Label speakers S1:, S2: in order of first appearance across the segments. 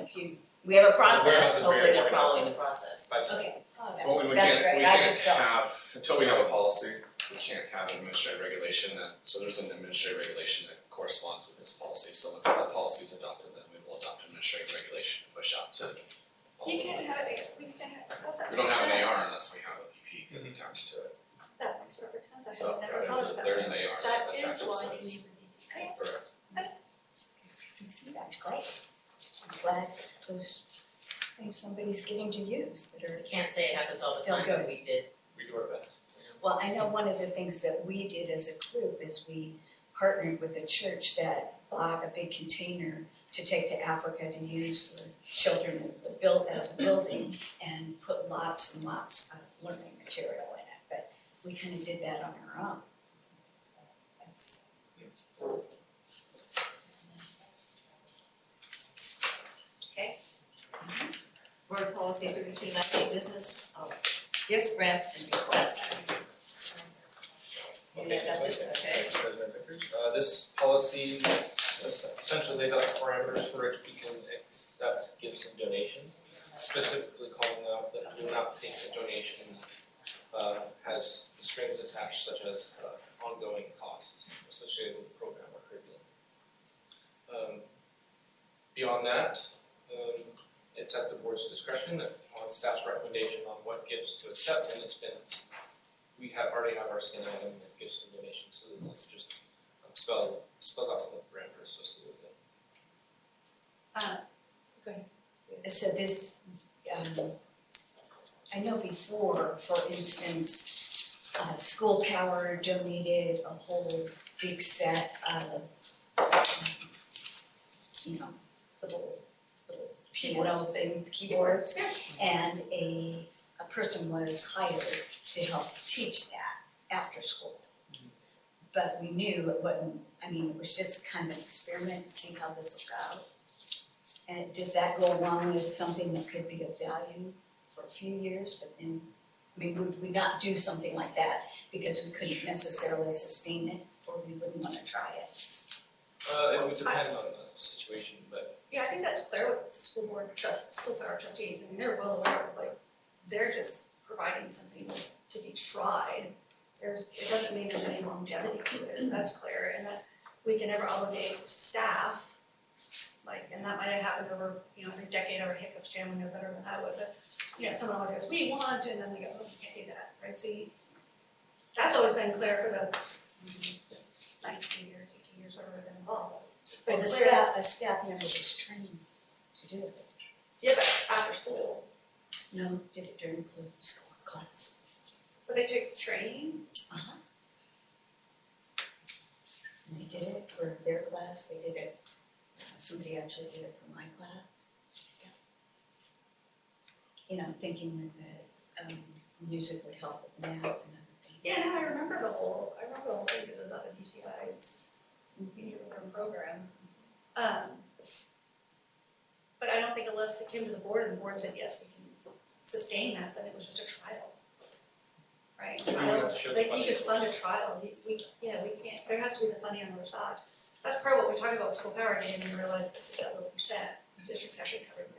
S1: if you, we have a process,
S2: process is very
S1: hopefully they're
S2: organized.
S1: following the process.
S2: That's-
S3: Oh, yeah.
S2: Only we
S1: That's
S2: can't,
S1: right,
S2: we
S1: I
S2: can't
S1: just don't.
S2: have, until we have a policy, we can't have an administrative regulation that, so there's an administrative regulation that corresponds with this policy, so once that policy is adopted, then we will adopt an administrative regulation and push out to. all
S3: You
S2: of
S3: can
S2: them.
S3: have it, we can have, oh, that
S2: We don't
S3: makes
S2: have an AR
S3: sense.
S2: unless we have a EP to attach to it,
S3: That makes perfect sense, I should
S2: so
S3: never
S2: there's,
S3: thought
S2: a-
S3: about
S2: there's
S3: that.
S2: an AR
S3: That
S2: that
S3: is
S2: attaches to
S3: why
S2: it.
S3: you need to be.
S2: Correct.
S4: That's great. I'm glad those things somebody's getting to use that
S1: I
S4: are,
S1: can't say it happens all the
S4: Still
S1: time,
S4: good.
S1: but we did,
S2: We do our best.
S4: well, I know one of the things that we did as a group is we partnered with a church that bought a big container to take to Africa to use for children with the build, as a building and put lots and lots of learning material in it, but we kind of did that on our own. So That's.
S3: Board policy thirty-two ninety, business,
S1: um,
S3: oh, gifts, grants, and requests.
S5: Okay,
S3: You got this,
S5: so-
S3: okay.
S5: President Vickers. Uh, this policy essentially lays out the parameters for which we can accept gifts and donations, specifically calling out that we will not take a donation uh, has strings attached such as uh, ongoing costs associated with the program or curriculum. Um, beyond that, um, it's at the board's discretion on staff's recommendation on what gifts to accept and expense we have already have our skin item that gives some donations, so this is just um, spell spells out some of the parameters associated with it.
S4: So this, um, I know before, for instance, uh, School Power donated a whole big set of, um, you know, little, little piano things, keyboards. And a, a person was hired to help teach that after school. But we knew it wasn't, I mean, it was just kind of an experiment, see how this will go. And does that go along with something that could be of value for a few years, but then, I mean, would we not do something like that because we couldn't necessarily sustain it, or we wouldn't wanna try it?
S5: Uh, it would depend on the situation, but
S6: Yeah, I think that's clear with the school board trust, school power trustees, I mean, they're well aware of like, they're just providing something to be tried. There's, it doesn't mean there's any longevity to it, and that's clear, and that we can never obligate staff. Like, and that might have happened over, you know, every decade or hiccups, Jan would know better than I would, but, you know, someone always goes, we want, and then they go, oh, we can't do that, right, so you. That's always been clear for the mm, nineteen years, eighteen years, whatever they've been involved, it's been
S4: Well, the
S6: clear.
S4: staff, a staff member was trained to do it.
S6: Yeah, but after school,
S4: No, did it during cl- school class.
S6: but they took training,
S4: Uh-huh. And they did it for their class, they did it, uh, somebody actually did it for my class. You know, thinking that the, um, music would help with math and other things.
S6: yeah, no, I remember the whole, I remember the whole thing, because it was up at UCI, it's uniform program. Um, but I don't think unless it came to the board and the board said, yes, we can sustain that, then it was just a trial. Right,
S5: we
S6: trial,
S5: have to show the
S6: like you
S5: funding
S6: could fund a
S5: source.
S6: trial, you- we, yeah, we can't, there has to be the funding on the other side. That's part of what we talked about with school power game, and we realized this is that little percent, district's actually covering it.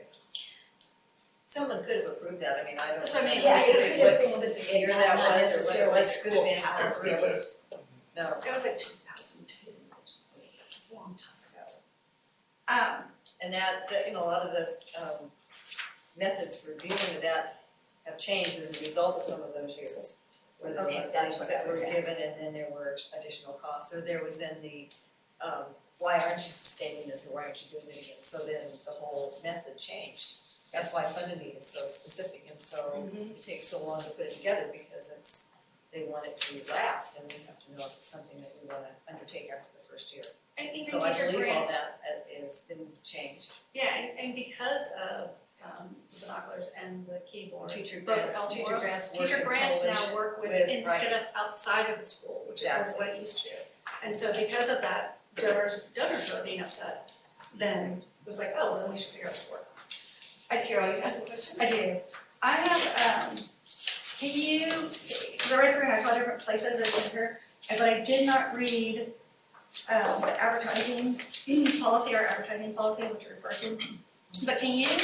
S7: Someone could have approved that, I mean, I don't know.
S6: That's what I mean,
S4: Yeah, it
S6: it could
S4: could have
S7: what
S4: been,
S7: specific year
S4: it
S7: that
S4: had
S7: was
S4: not
S7: or what it
S4: necessarily
S7: was, it could
S4: school
S7: have been
S4: power,
S7: school
S4: it
S7: power.
S4: was,
S7: No,
S6: It was like two thousand two, a long time ago. Um,
S7: and that, that, you know, a lot of the um methods for dealing with that have changed as a result of some of those years. Where there were
S4: Okay, that's
S7: things
S4: what
S7: that
S4: I
S7: were
S4: was
S7: given and then there were additional costs, so there was then the um, why aren't you sustaining this or why aren't you doing it again? So then the whole method changed. That's why funding is so specific and so
S4: Mm-hmm.
S7: it takes so long to put it together because it's, they want it to last and we have to know if it's something that we wanna undertake after the first year.
S6: and even
S7: So I
S6: teacher
S7: believe all
S6: grants,
S7: that uh, has been changed.
S6: yeah, and, and because of, um, the binoculars and the keyboard,
S7: Teacher
S6: both
S7: grants, teacher
S6: Almora's-
S7: grants work
S6: teacher
S7: in
S6: grants now
S7: coalition.
S6: work with
S7: with-
S6: instead of outside of the school, which is
S7: Exactly.
S6: what it used to. do. And so because of that, donors, donors were being upset, then it was like, oh, well, then we should figure out the work. I
S7: Carol, you have some questions?
S6: I do. I have, um, can you, because I read through and I saw different places in here, and- but I did not read, um, the advertising policy or advertising policy, which you're referring to. But can you